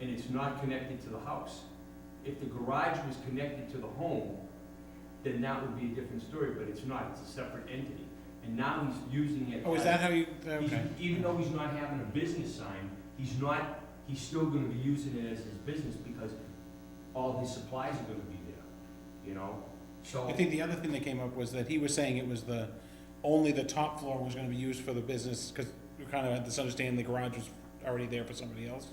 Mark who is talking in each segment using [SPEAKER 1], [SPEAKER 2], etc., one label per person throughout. [SPEAKER 1] and it's not connected to the house. If the garage was connected to the home, then that would be a different story, but it's not, it's a separate entity. And now he's using it.
[SPEAKER 2] Oh, is
[SPEAKER 1] as-
[SPEAKER 2] that how you,
[SPEAKER 1] he's-
[SPEAKER 2] okay.
[SPEAKER 1] Even though he's not having a business sign, he's not, he's still gonna be using it as his business because all his supplies are gonna be there, you know? So.
[SPEAKER 2] I think the other thing that came up was that he was saying it was the, only the top floor was gonna be used for the business, cause we kind of had this understanding the garage was already there for somebody else.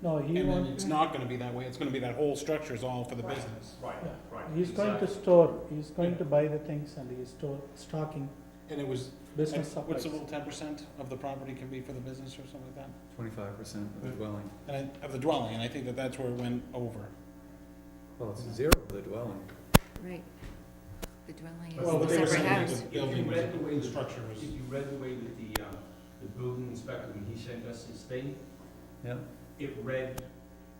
[SPEAKER 3] No, he
[SPEAKER 2] And then
[SPEAKER 3] wants,
[SPEAKER 2] it's not gonna be that way, it's gonna be that whole structure is all for the
[SPEAKER 1] Right.
[SPEAKER 2] business.
[SPEAKER 1] Right, right.
[SPEAKER 3] he's going to
[SPEAKER 1] exactly.
[SPEAKER 3] store, he's going to buy the things and he's store, stocking
[SPEAKER 2] And it was, and
[SPEAKER 3] business
[SPEAKER 2] what's
[SPEAKER 3] supplies.
[SPEAKER 2] the little ten percent of the property can be for the business or something like that?
[SPEAKER 4] Twenty-five percent of the
[SPEAKER 2] Mm.
[SPEAKER 4] dwelling,
[SPEAKER 2] And I, of the dwelling, and I think that that's where it went over.
[SPEAKER 4] well, it's zero of the dwelling.
[SPEAKER 5] Right. The dwelling
[SPEAKER 1] Well, but
[SPEAKER 5] is
[SPEAKER 1] they
[SPEAKER 5] a
[SPEAKER 1] were
[SPEAKER 5] separate
[SPEAKER 1] saying
[SPEAKER 5] house.
[SPEAKER 1] If you read the way the-
[SPEAKER 2] structure
[SPEAKER 1] If you read the way that the, uh, the building inspector, when he sent us his thing,
[SPEAKER 4] Yeah,
[SPEAKER 1] it read,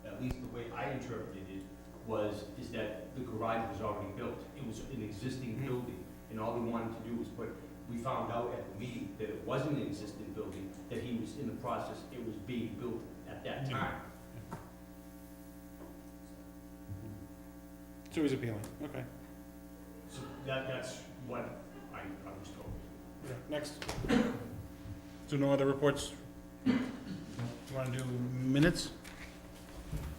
[SPEAKER 1] at least the way I interpreted it, was, is that the garage was already built. It was an existing
[SPEAKER 2] Mhm.
[SPEAKER 1] building, and all we wanted to do was put, we found out at the meeting that it wasn't an existing building, that he was in the process, it was being built at that
[SPEAKER 2] Mhm.
[SPEAKER 1] time.
[SPEAKER 2] So he's appealing, okay.
[SPEAKER 1] So that, that's what I, I was told.
[SPEAKER 2] Next. So no other reports? You wanna do minutes?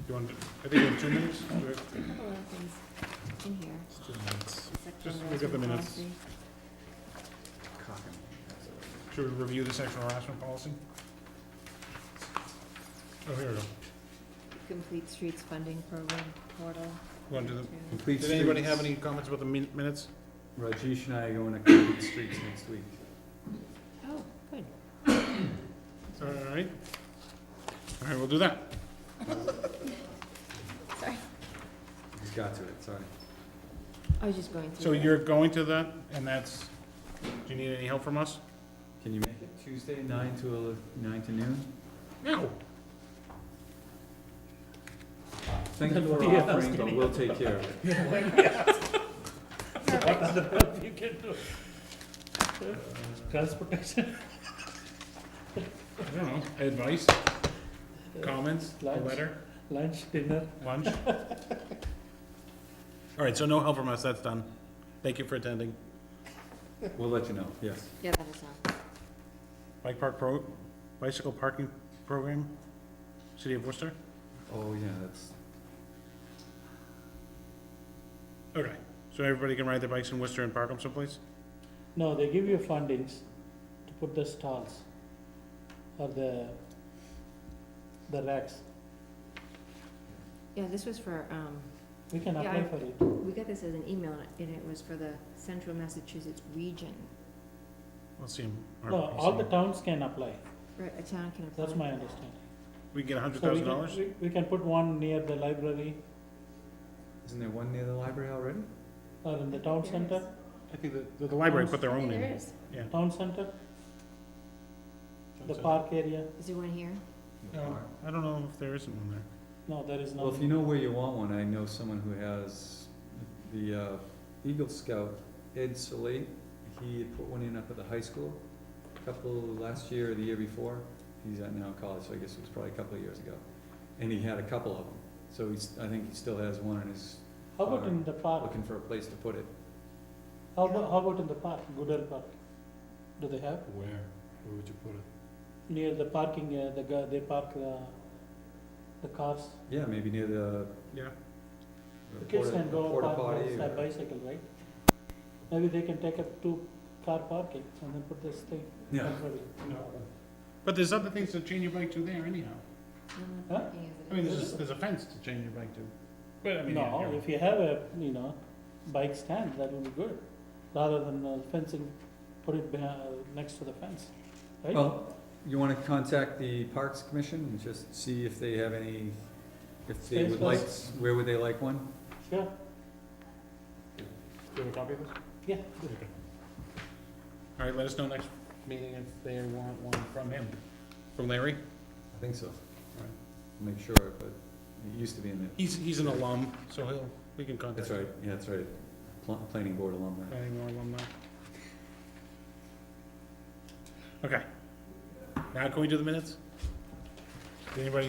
[SPEAKER 2] You wanna, do- I think we have two minutes? Do we-
[SPEAKER 5] A couple of things in here.
[SPEAKER 2] Let's do minutes.
[SPEAKER 5] the section
[SPEAKER 2] Just
[SPEAKER 5] on
[SPEAKER 2] look at the
[SPEAKER 5] resident
[SPEAKER 2] minutes.
[SPEAKER 5] policy.
[SPEAKER 4] cocking.
[SPEAKER 2] Should we review the sexual harassment policy? Oh, here we go.
[SPEAKER 5] Complete Streets Funding Program Portal.
[SPEAKER 2] You wanna do the,
[SPEAKER 5] to-
[SPEAKER 4] Complete
[SPEAKER 2] did anybody have
[SPEAKER 4] streets.
[SPEAKER 2] any comments about the min- minutes?
[SPEAKER 4] Rajesh and I are going to complete streets next week.
[SPEAKER 5] Oh, good.
[SPEAKER 2] All right. All right, we'll do that.
[SPEAKER 5] Sorry.
[SPEAKER 4] Just got to it, sorry.
[SPEAKER 5] I was just going through.
[SPEAKER 2] So
[SPEAKER 5] that.
[SPEAKER 2] you're going to that, and that's, do you need any help from us?
[SPEAKER 4] Can you make it Tuesday, nine to, ele- nine to noon?
[SPEAKER 2] No.
[SPEAKER 4] Thank you for
[SPEAKER 3] Yeah.
[SPEAKER 4] offering, but we'll take care of it.
[SPEAKER 3] Transportation.
[SPEAKER 2] I don't know, advice, comments, a
[SPEAKER 3] Lunch.
[SPEAKER 2] letter,
[SPEAKER 3] Lunch, dinner.
[SPEAKER 2] lunch? All right, so no help from us, that's done. Thank you for attending.
[SPEAKER 4] We'll let you know, yes.
[SPEAKER 5] Yeah, that is all.
[SPEAKER 2] Bike park pro, bicycle parking program, City of Worcester?
[SPEAKER 4] Oh, yeah, that's,
[SPEAKER 2] Okay, so everybody can ride their bikes in Worcester and park them someplace?
[SPEAKER 3] No, they give you fundings to put the stalls or the, the racks.
[SPEAKER 5] Yeah, this was for, um,
[SPEAKER 3] We can
[SPEAKER 5] Yeah,
[SPEAKER 3] apply
[SPEAKER 5] I-
[SPEAKER 3] for it.
[SPEAKER 5] we got this as an email and it was for the Central Massachusetts region.
[SPEAKER 2] Let's see. 'em.
[SPEAKER 3] No, all the towns can apply.
[SPEAKER 5] Right, a town can apply.
[SPEAKER 3] That's my understanding.
[SPEAKER 2] We can get a hundred
[SPEAKER 3] So we
[SPEAKER 2] thousand
[SPEAKER 3] can-
[SPEAKER 2] dollars?
[SPEAKER 3] we- We can put one near the library
[SPEAKER 4] isn't there one near the library already?
[SPEAKER 3] or in the town
[SPEAKER 5] There
[SPEAKER 3] center,
[SPEAKER 5] is.
[SPEAKER 2] I think the, the library put their own
[SPEAKER 5] There
[SPEAKER 2] in.
[SPEAKER 5] is.
[SPEAKER 3] town center, the park area.
[SPEAKER 5] Is there one here?
[SPEAKER 2] No, I don't know if there isn't one there.
[SPEAKER 3] No, there is
[SPEAKER 4] Well,
[SPEAKER 3] no.
[SPEAKER 4] if you know where you want one, I know someone who has the uh, Eagle Scout, Ed Salate. He had put one in up at the high school, a couple, last year or the year before. He's at now college, so I guess it was probably a couple of years ago. And he had a couple of them. So he's, I think he still has one and is
[SPEAKER 3] How about in the park?
[SPEAKER 4] looking for a place to put it.
[SPEAKER 3] How about, how about in the park, Goodell Park? Do they have?
[SPEAKER 2] Where? Where would you put it?
[SPEAKER 3] Near the parking, uh, the, ga- they park the, the cars.
[SPEAKER 4] Yeah, maybe near the
[SPEAKER 2] Yeah.
[SPEAKER 3] The kids
[SPEAKER 4] porta
[SPEAKER 3] can go
[SPEAKER 4] porta
[SPEAKER 3] park
[SPEAKER 4] potty
[SPEAKER 3] their
[SPEAKER 4] or-
[SPEAKER 3] bicycle, right? Maybe they can take up two car parking and then put this thing.
[SPEAKER 4] Yeah,
[SPEAKER 3] temporary.
[SPEAKER 2] But there's other things to chain your bike to there anyhow.
[SPEAKER 5] I'm
[SPEAKER 3] Huh?
[SPEAKER 5] not thinking of it.
[SPEAKER 2] I mean, there's, a- there's a fence to chain your bike to. But I mean, yeah,
[SPEAKER 3] No,
[SPEAKER 2] you're-
[SPEAKER 3] if you have a, you know, bike stand, that will be good, rather than uh, fencing, put it behind, uh, next to the fence, right?
[SPEAKER 4] Well, you wanna contact the Parks Commission and just see if they have any, if they
[SPEAKER 3] Space
[SPEAKER 4] would
[SPEAKER 3] for
[SPEAKER 4] like,
[SPEAKER 3] us?
[SPEAKER 4] where would they like one?
[SPEAKER 3] Sure,
[SPEAKER 2] Do you have a copy of this?
[SPEAKER 3] yeah.
[SPEAKER 2] All right, let us know next meeting if they want one from him. From Larry?
[SPEAKER 4] I think so.
[SPEAKER 2] Alright.
[SPEAKER 4] I'll Make sure, but it used to be in the,
[SPEAKER 2] He's, he's an alum, so he'll, we can contact
[SPEAKER 4] that's
[SPEAKER 2] him.
[SPEAKER 4] right, yeah, that's right, Pl- planning board alumni.
[SPEAKER 2] Any more alumni? Okay. Now can we do the minutes? Did anybody